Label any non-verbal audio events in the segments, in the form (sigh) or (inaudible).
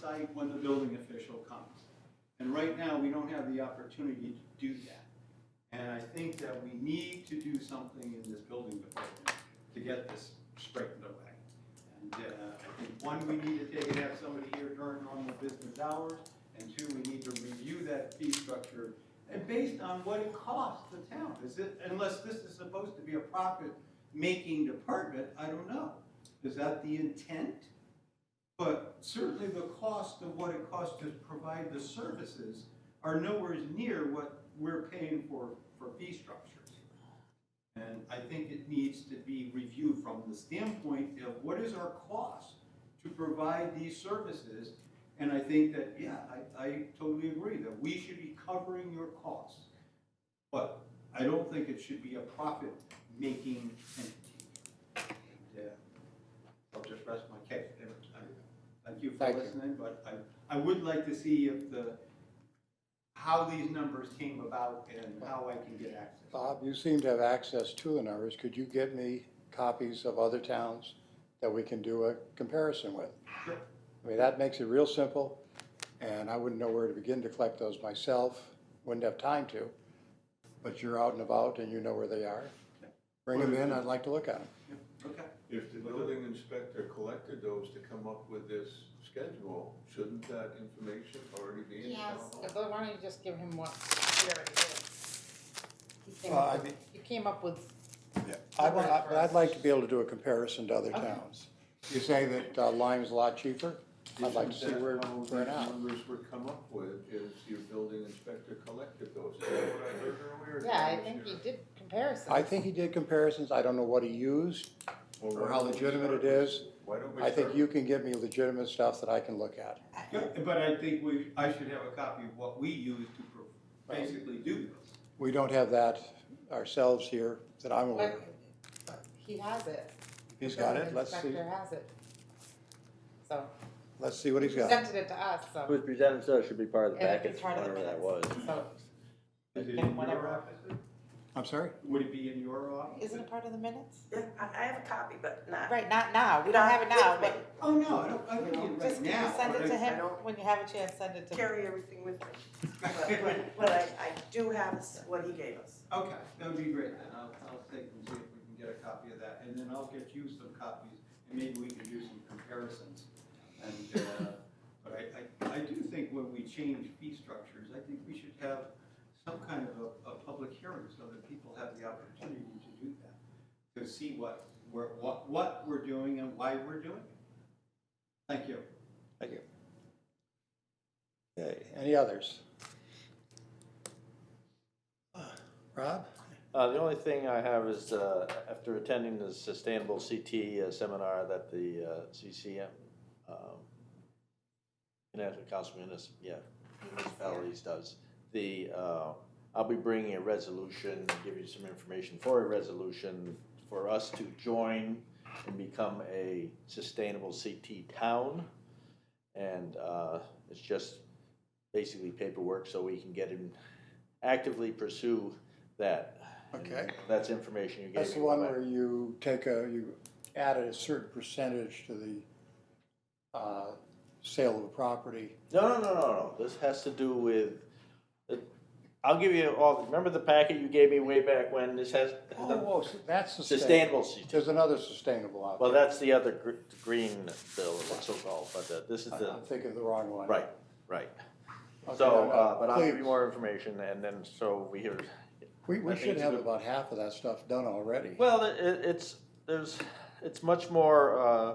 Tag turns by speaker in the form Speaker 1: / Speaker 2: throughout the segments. Speaker 1: site when the building official comes. And right now, we don't have the opportunity to do that. And I think that we need to do something in this building department to get this straightened away. And uh, I think, one, we need to take and have somebody here during normal business hours, and two, we need to review that fee structure, and based on what it costs the town, is it, unless this is supposed to be a profit-making department, I don't know. Is that the intent? But certainly the cost of what it costs to provide the services are nowhere near what we're paying for, for fee structures. And I think it needs to be reviewed from the standpoint of what is our cost to provide these services? And I think that, yeah, I, I totally agree that we should be covering your costs. But I don't think it should be a profit-making entity. Yeah, I'll just rest my case. there. I- Thank you for
Speaker 2: Thank you.
Speaker 1: listening, but I, I would like to see if the, how these numbers came about and how I can get access.
Speaker 2: Bob, you seem to have access to the numbers. Could you get me copies of other towns that we can do a comparison with?
Speaker 1: Sure.
Speaker 2: I mean, that makes it real simple, and I wouldn't know where to begin to collect those myself, wouldn't have time to. But you're out and about and you know where they are. Bring them in, I'd like to look at them.
Speaker 1: Yeah, Okay.
Speaker 3: If the building inspector collected those to come up with this schedule, shouldn't that information already be in town
Speaker 4: Yes,
Speaker 3: hall?
Speaker 4: but why don't you just give him what he already is? He came,
Speaker 2: Well, I
Speaker 4: up
Speaker 2: mean-
Speaker 4: with- he came up with,
Speaker 2: I'd, I'd- I'd like to be able to do a comparison to other towns. You say that uh, Lyme's a lot cheaper? I'd like to see
Speaker 3: Isn't
Speaker 2: where,
Speaker 3: that how
Speaker 2: where it
Speaker 3: these
Speaker 2: out.
Speaker 3: Numbers were come up with is your building inspector collected those, is that what I heard earlier?
Speaker 4: yeah, I think he did comparisons.
Speaker 2: I think he did comparisons. I don't know what he used.
Speaker 3: Well, why
Speaker 2: or how
Speaker 3: don't we
Speaker 2: legitimate it
Speaker 3: start with-
Speaker 2: is.
Speaker 3: Why don't we
Speaker 2: I think
Speaker 3: start
Speaker 2: you can give me legitimate stuff that I can look at.
Speaker 1: Yeah, But I think we, I should have a copy of what we use to pro- basically do this.
Speaker 2: We don't have that ourselves here that I'm aware of.
Speaker 4: But- but He has it.
Speaker 2: He's
Speaker 4: The
Speaker 2: got it,
Speaker 4: building
Speaker 2: let's see,
Speaker 4: Inspector has it. So,
Speaker 2: let's see what
Speaker 4: he
Speaker 2: he's got.
Speaker 4: presented it to us,
Speaker 5: It
Speaker 4: so,
Speaker 5: was presented, so it should be part of the
Speaker 4: And it'd be
Speaker 5: package,
Speaker 4: part of the
Speaker 5: whatever that was.
Speaker 4: minutes. so,
Speaker 1: Is it
Speaker 4: And
Speaker 1: in your
Speaker 4: whatever.
Speaker 1: office?
Speaker 2: I'm sorry?
Speaker 1: Would it be in your office?
Speaker 4: isn't it part of the minutes?
Speaker 6: Yeah, I I have a copy, but not.
Speaker 4: Right, not now, we don't have it now,
Speaker 6: Not with
Speaker 4: but
Speaker 6: me.
Speaker 1: Oh, no, I don't, I don't
Speaker 6: You know,
Speaker 1: need it right
Speaker 4: just
Speaker 1: now.
Speaker 4: send
Speaker 1: (laughs)
Speaker 4: it
Speaker 1: but
Speaker 4: to
Speaker 1: I-
Speaker 6: I
Speaker 4: him,
Speaker 6: don't-
Speaker 4: when you have a chance, send it to him.
Speaker 6: Carry everything with me. But, but- but I, I do have s- what he gave us.
Speaker 1: Okay, that would be great then. I'll, I'll take and see if we can get a copy of that. And then I'll get you some copies and maybe we can do some comparisons. And, uh, (laughs) but I, I, I do think when we change fee structures, I think we should have some kind of a, a public hearing so that people have the opportunity to do that. To see what, we're what, what we're doing and why we're doing it. Thank you.
Speaker 2: Thank you. Okay, any others? Rob?
Speaker 5: Uh, the only thing I have is, uh, after attending the Sustainable CT uh, seminar that the, uh, CCM, um, Connecticut Council of Munis, yeah, municipalities does, the, uh, I'll be bringing a resolution, give you some information for a resolution for us to join and become a Sustainable CT town. And, uh, it's just basically paperwork so we can get in, actively pursue that.
Speaker 2: Okay.
Speaker 5: And That's information you gave me.
Speaker 2: That's the one where you take a, you added a certain percentage to the uh, sale of a property.
Speaker 5: No, no, no, no, no, this has to do with, I'll give you all, remember the packet you gave me way back when, this has.
Speaker 2: Oh, whoa, so that's sustainable.
Speaker 5: Sustainable CT.
Speaker 2: There's another sustainable out
Speaker 5: Well,
Speaker 2: there.
Speaker 5: that's the other gr- green bill, what's so called, but uh, this is
Speaker 2: I-
Speaker 5: the,
Speaker 2: I'm thinking of the wrong one.
Speaker 5: right, right.
Speaker 2: uh, Okay, no,
Speaker 5: So,
Speaker 2: no,
Speaker 5: uh, but I'll give you
Speaker 2: please.
Speaker 5: more information and then, so we hear,
Speaker 2: We, we
Speaker 5: I think
Speaker 2: should
Speaker 5: it's
Speaker 2: have
Speaker 5: good.
Speaker 2: about half of that stuff done already.
Speaker 5: well, it, it- it's, there's, it's much more, uh,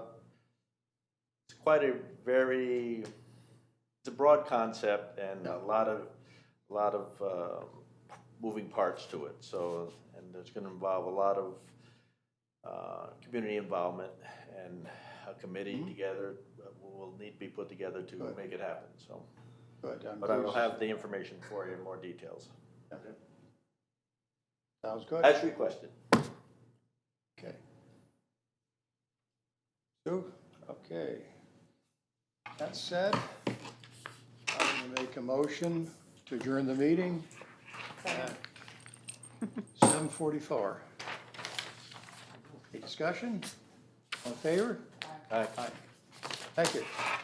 Speaker 5: it's quite a very, it's a broad concept and a lot of, a lot of, uh, moving parts to it, so, and it's gonna involve a lot of, uh, community involvement and a committee together, uh, will will need to be put together to
Speaker 2: Good.
Speaker 5: make it happen, so.
Speaker 2: Good, I'm
Speaker 5: But I will
Speaker 2: pleased.
Speaker 5: have the information for you in more details,
Speaker 2: Sounds good.
Speaker 5: as requested.
Speaker 2: Okay. Sue, okay. That said, I'm gonna make a motion to adjourn the meeting at (laughs) seven forty-four. Any discussion? All in favor?
Speaker 5: Aye.
Speaker 2: Thank you.